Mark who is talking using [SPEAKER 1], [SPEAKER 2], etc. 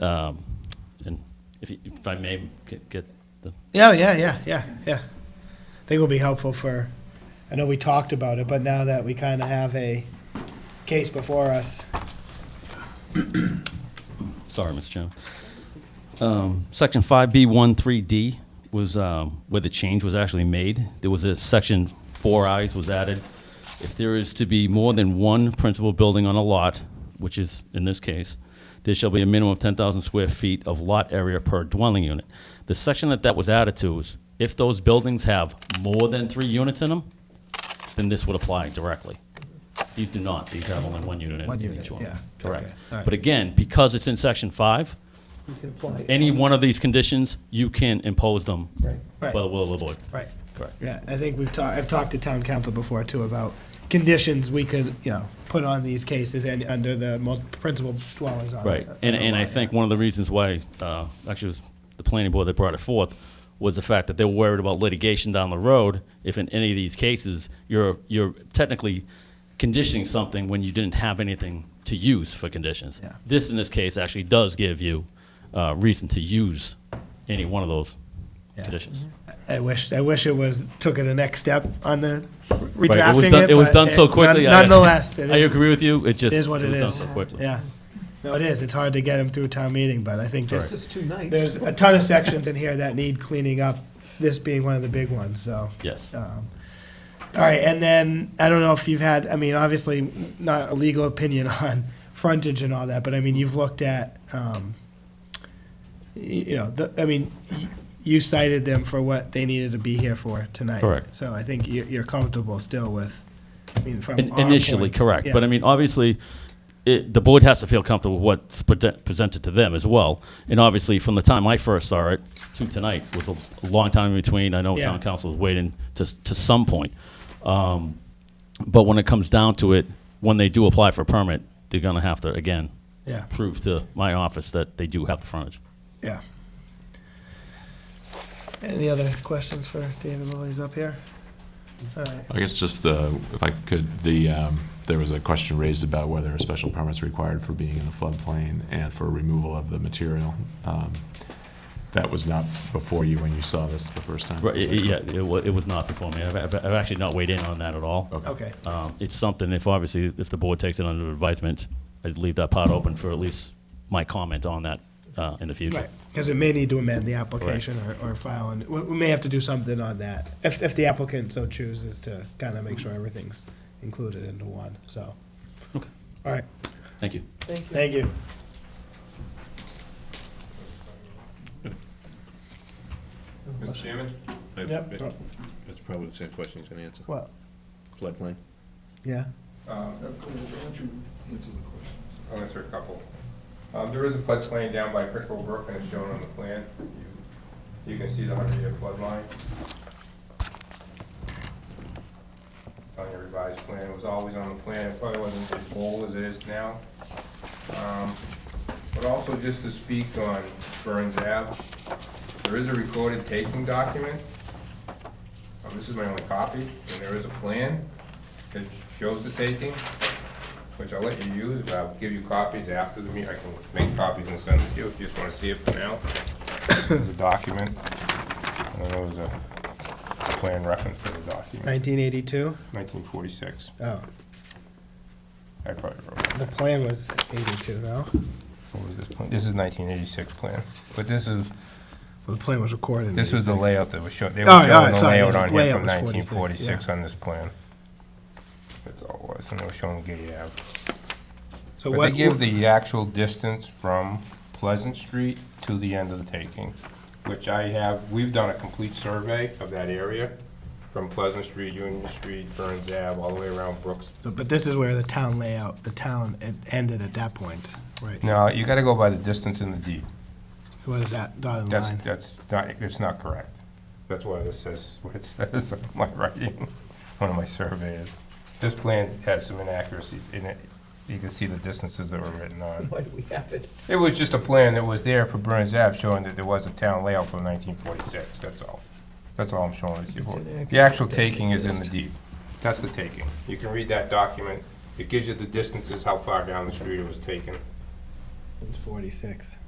[SPEAKER 1] um, and if, you- if I may get, get the,
[SPEAKER 2] Yeah, yeah, yeah, yeah, yeah. I think it'll be helpful for, I know we talked about it, but now that we kind of have a case before us.
[SPEAKER 1] sorry, Mr. Chairman. Um, section five B one three D was, um, where the change was actually made. There was a section four I's was added. If there is to be more than one principal building on a lot, which is in this case, there shall be a minimum of ten thousand square feet of lot area per dwelling unit. The section that that was added to was if those buildings have more than three units in them, then this would apply directly. These do not, these have only one unit in
[SPEAKER 2] One
[SPEAKER 1] each one.
[SPEAKER 2] unit, yeah.
[SPEAKER 1] Correct.
[SPEAKER 2] Okay, all right.
[SPEAKER 1] But again, because it's in section five, any one of these conditions, you can impose them by
[SPEAKER 2] Right.
[SPEAKER 1] the will of the board.
[SPEAKER 2] Right.
[SPEAKER 1] Correct.
[SPEAKER 2] Yeah, I think we've talked, I've talked to town council before too about conditions we could, you know, put on these cases and under the mul- principal dwellings on.
[SPEAKER 1] Right. And, and I think one of the reasons why, uh, actually it was the planning board that brought it forth, was the fact that they were worried about litigation down the road. If in any of these cases, you're, you're technically conditioning something when you didn't have anything to use for conditions.
[SPEAKER 2] Yeah.
[SPEAKER 1] This, in this case, actually does give you, uh, reason to use any one of those
[SPEAKER 2] Yeah.
[SPEAKER 1] conditions.
[SPEAKER 2] I wish, I wish it was, took it a next step on the
[SPEAKER 1] Right, it was
[SPEAKER 2] redrafting
[SPEAKER 1] done,
[SPEAKER 2] it.
[SPEAKER 1] it was
[SPEAKER 2] but
[SPEAKER 1] done so
[SPEAKER 2] none-
[SPEAKER 1] quickly. I-
[SPEAKER 2] Nonetheless. it
[SPEAKER 1] I
[SPEAKER 2] is-
[SPEAKER 1] agree with you, it just.
[SPEAKER 2] It is what it
[SPEAKER 1] was done
[SPEAKER 2] is.
[SPEAKER 1] so quickly.
[SPEAKER 2] Yeah. No, it is. It's hard to get them through town meeting, but I think
[SPEAKER 3] This
[SPEAKER 2] this,
[SPEAKER 3] is two nights.
[SPEAKER 2] there's a ton of sections in here that need cleaning up, this being one of the big ones, so.
[SPEAKER 1] Yes.
[SPEAKER 2] um, All right, and then, I don't know if you've had, I mean, obviously, not a legal opinion on frontage and all that, but I mean, you've looked at, um, y- you know, the, I mean, y- you cited them for what they needed to be here for tonight.
[SPEAKER 1] Correct.
[SPEAKER 2] So I think you're, you're comfortable still with, I mean, from
[SPEAKER 1] In-
[SPEAKER 2] our
[SPEAKER 1] Initially,
[SPEAKER 2] point.
[SPEAKER 1] correct,
[SPEAKER 2] Yeah.
[SPEAKER 1] but I mean, obviously, it, the board has to feel comfortable with what's prete- presented to them as well. And obviously, from the time I first saw it to tonight was a long time in between. I know
[SPEAKER 2] Yeah.
[SPEAKER 1] town council was waiting to, s- to some point. Um, But when it comes down to it, when they do apply for a permit, they're gonna have to, again,
[SPEAKER 2] Yeah.
[SPEAKER 1] prove to my office that they do have the frontage.
[SPEAKER 2] Yeah. Any other questions for David while he's up here? All right,
[SPEAKER 4] I guess just the, if I could, the, um, there was a question raised about whether a special permit's required for being in the floodplain and for removal of the material. Um, That was not before you when you saw this the first time?
[SPEAKER 1] Right,
[SPEAKER 4] is
[SPEAKER 1] it-
[SPEAKER 4] that
[SPEAKER 1] it- yeah,
[SPEAKER 4] correct?
[SPEAKER 1] it wa- it was not before me. I've, I've I've actually not weighed in on that at all.
[SPEAKER 2] okay,
[SPEAKER 1] Um, It's something, if obviously, if the board takes it under advisement, I'd leave that part open for at least my comment on that uh, in the
[SPEAKER 2] right,
[SPEAKER 1] future.
[SPEAKER 2] because it may need to amend the application or, or file, and we, we may have to do something on that, if, if the applicant so chooses to kind of make sure everything's included into one, so.
[SPEAKER 1] Okay.
[SPEAKER 2] All right,
[SPEAKER 1] Thank you.
[SPEAKER 3] Thank you.
[SPEAKER 2] thank you.
[SPEAKER 5] Mr. Chairman? I-
[SPEAKER 2] Yep.
[SPEAKER 5] it- That's probably the same question he's going to answer.
[SPEAKER 2] Well,
[SPEAKER 5] Floodplain?
[SPEAKER 2] yeah,
[SPEAKER 6] I'll answer a couple. Um, there is a floodplain down by Crickle Brook and it's shown on the plan. You- You can see the hundred-year flood line. It's on your revised plan. It was always on the plan. It probably wasn't as bold as it is now. Um, but also just to speak on Burns Ave, there is a recorded taking document. Um, this is my only copy, and there is a plan that shows the taking which I'll let you use, but I'll give you copies after the meeting. I can make copies and send it to you if you just want to see it for now. There's a document, and then there was a plan reference to the document,
[SPEAKER 2] nineteen eighty-two,
[SPEAKER 6] 1946.
[SPEAKER 2] oh,
[SPEAKER 6] I probably wrote it.
[SPEAKER 2] the plan was eighty-two, no?
[SPEAKER 6] What was this plan? This is 1986 plan, but this is,
[SPEAKER 2] Well, the plan was recorded in
[SPEAKER 6] this was the
[SPEAKER 2] 86.
[SPEAKER 6] layout that was shown. They were
[SPEAKER 2] All right, all right,
[SPEAKER 6] showing the
[SPEAKER 2] Oh, sorry,
[SPEAKER 6] layout
[SPEAKER 2] the
[SPEAKER 6] on here
[SPEAKER 2] layout
[SPEAKER 6] from
[SPEAKER 2] was 46, yeah.
[SPEAKER 6] 1946 on this plan. That's all it was, and they were showing Gay Ave.
[SPEAKER 2] So
[SPEAKER 6] But
[SPEAKER 2] what,
[SPEAKER 6] they give the actual distance from Pleasant Street to the end of the taking, which I have, we've done a complete survey of that area, from Pleasant Street, Union Street, Burns Ave, all the way around Brooks.
[SPEAKER 2] so- but this is where the town layout, the town it ended at that point, right?
[SPEAKER 6] No, you gotta go by the distance in the deed.
[SPEAKER 2] What is that dotted
[SPEAKER 6] That's,
[SPEAKER 2] line?
[SPEAKER 6] that's not, it's not correct. That's why this says what it says on my writing, one of my surveys. This plan has some inaccuracies in it. You can see the distances that were written on.
[SPEAKER 3] Why do we have it?
[SPEAKER 6] It was just a plan that was there for Burns Ave showing that there was a town layout from nineteen forty-six, that's all. That's all I'm showing it to you for. The actual taking is in the deed. That's the taking. You can read that document. It gives you the distances, how far down the street it was taken.
[SPEAKER 2] It's forty-six.